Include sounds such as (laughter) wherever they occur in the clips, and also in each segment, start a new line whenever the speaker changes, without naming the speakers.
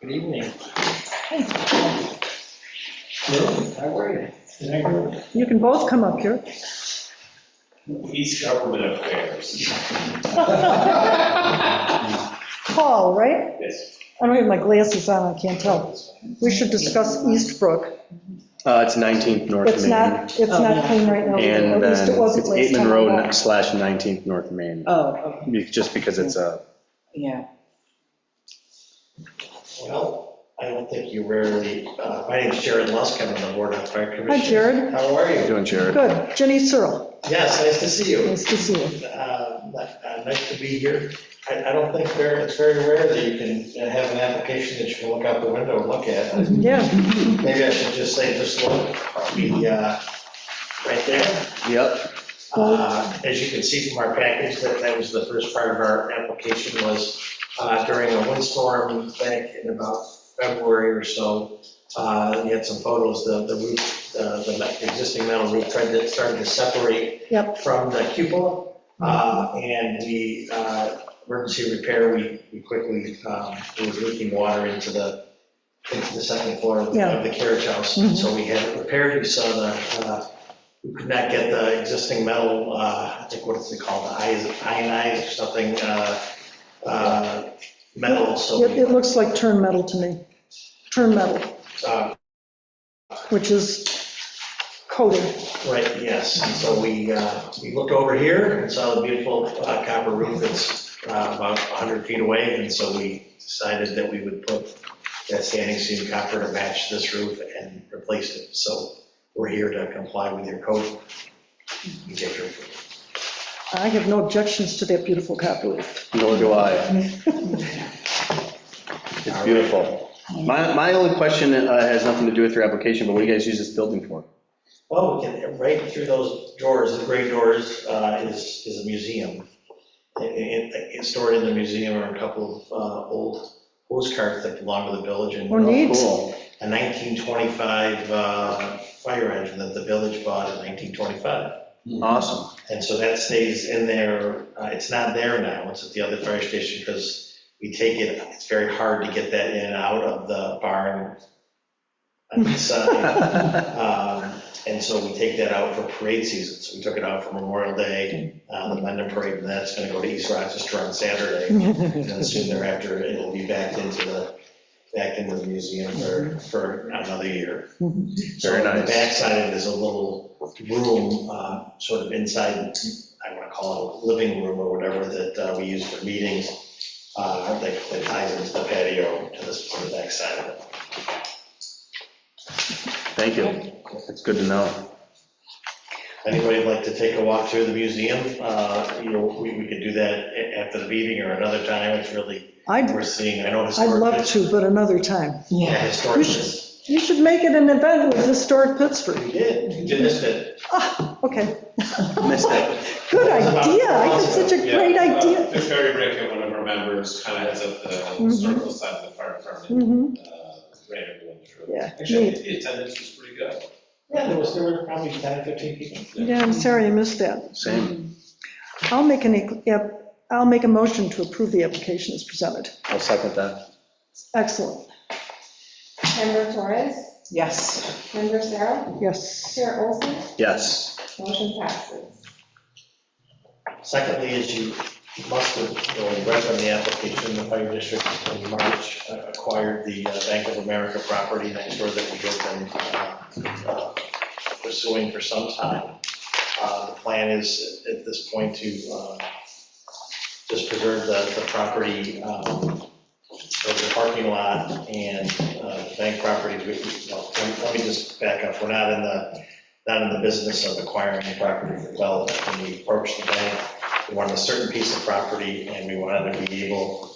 Good evening. Hello, how are you? Can I go?
You can both come up here.
He's government affairs.
(laughs) Paul, right?
Yes.
I don't have my glasses on, I can't tell. We should discuss Eastbrook.
Uh, It's 19th North
It's
Main.
not, it's not clean right now.
Oh. And
At least
then
it wasn't last
it's Aitman
time I
Road
walked.
slash 19th North Main,
Oh, okay,
be- just because it's uh, a,
yeah.
Well, I don't think you rarely, uh, my name's Jared Lusk, I'm on the Board of Fire
Hi,
Commissioners.
Jared.
How are you?
doing Jared.
Good. Jenny Searle,
Yes, nice to see you.
nice to see you.
Uh, uh, Nice to be here. I I don't think there, it's very rare that you can uh, have an application that you can look out the window and look at.
Yeah,
Maybe I should just say, just look, the, uh, right there.
Yep,
Uh, As you can see from our package, that that was the first part of our application was uh, during a windstorm back in about February or so. uh, You had some photos, the the roof, uh, the me- existing metal roof tried to, started to separate
Yep.
from the cupola. uh, And we, uh, emergency repair, we we quickly, um, it was leaking water into the, into the second floor of the-
Yeah.
of the carriage house.
Mhm.
So we had it repaired, we saw the uh, we could not get the existing metal, uh, I think what is it called, ionized or something, uh, uh, metal, so
it,
we,
it looks like turn metal to me. Turn metal,
uh,
which is coated.
right, yes. And so we, uh, we looked over here and saw the beautiful uh, copper roof that's uh, about 100 feet away, and so we decided that we would put that standing seam copper to match this roof and replace it. So we're here to comply with your code. and get your-
I have no objections to that beautiful copper roof.
nor do
(laughs)
I. It's beautiful. My, my only question uh, has nothing to do with your application, but what do you guys use this building for?
Well, we can, right through those doors, the gray doors, uh, is, is a museum. And- and- and It's stored in the museum are a couple of uh, old postcards that belong to the village and
Or neat.
Oh, Cool.
a 1925 uh, fire engine that the village bought in 1925.
Awesome.
And so that stays in there, uh, it's not there now, it's at the other fire station because we take it, it's very hard to get that in and out of the barn. on the side. Um, And so we take that out for parade season, so we took it out for Memorial Day, uh, the Mendon Parade, and that's gonna go to East Rochester on Saturday. And then soon thereafter, it'll be back into the, back into the museum for, for another year. So
Very
on the
nice.
backside, there's a little room, uh, sort of inside, I wanna call it a living room or whatever, that uh, we use for meetings, uh, that that ties into the patio to this, to the backside of it.
Thank you. It's good to know.
Anybody would like to take a walk through the museum, uh, you know, we, we could do that a- after the meeting or another time, it's really,
I'd,
we're seeing, I know
I'd
historic.
love to, but another time.
Yeah,
Yeah,
historic, we
You should make it an event with Historic Pittsburgh.
did, we did this bit.
Ah, okay,
Missed it.
good idea, I think such a great
Yeah, uh,
idea. Mm-hmm.
Victoria Rickett, one of our members, kind of heads up the historical side of the fire department.
Mhm.
uh, Ran everyone through.
Yeah,
Actually,
neat.
the attendance was pretty good.
Yeah, there was, there were probably 10, 15 people.
Yeah, I'm sorry I missed that.
Same.
I'll make an, e- yep, I'll make a motion to approve the application as presented.
I'll second that.
Excellent,
Member Torres,
yes.
member Sarah,
yes.
Chair Olson,
Yes.
motion passes.
Secondly, is you must have, or you read on the application, the fire district in March uh, acquired the uh, Bank of America property next door that we have been uh, uh, pursuing for some time. Uh, The plan is at this point to uh, just preserve the, the property, um, of the parking lot and uh, the bank properties. We- we- well, Let let me just back up, we're not in the, not in the business of acquiring property for development. When we approached the bank, we wanted a certain piece of property, and we wanted to be able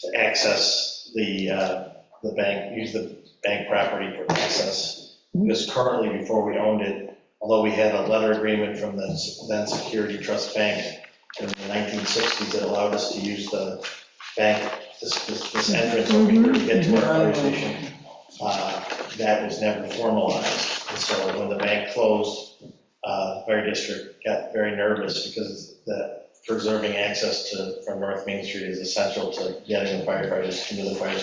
to access the, uh, the bank, use the bank property for access. Because currently, before we owned it, although we had a letter agreement from the then Security Trust Bank in the 1960s that allowed us to use the bank, this, this this entrance over here to get to our fire station, uh, that was never formalized. And so when the bank closed, uh, the fire district got very nervous because that preserving access to, from North Main Street is essential to getting the firefighters into the fire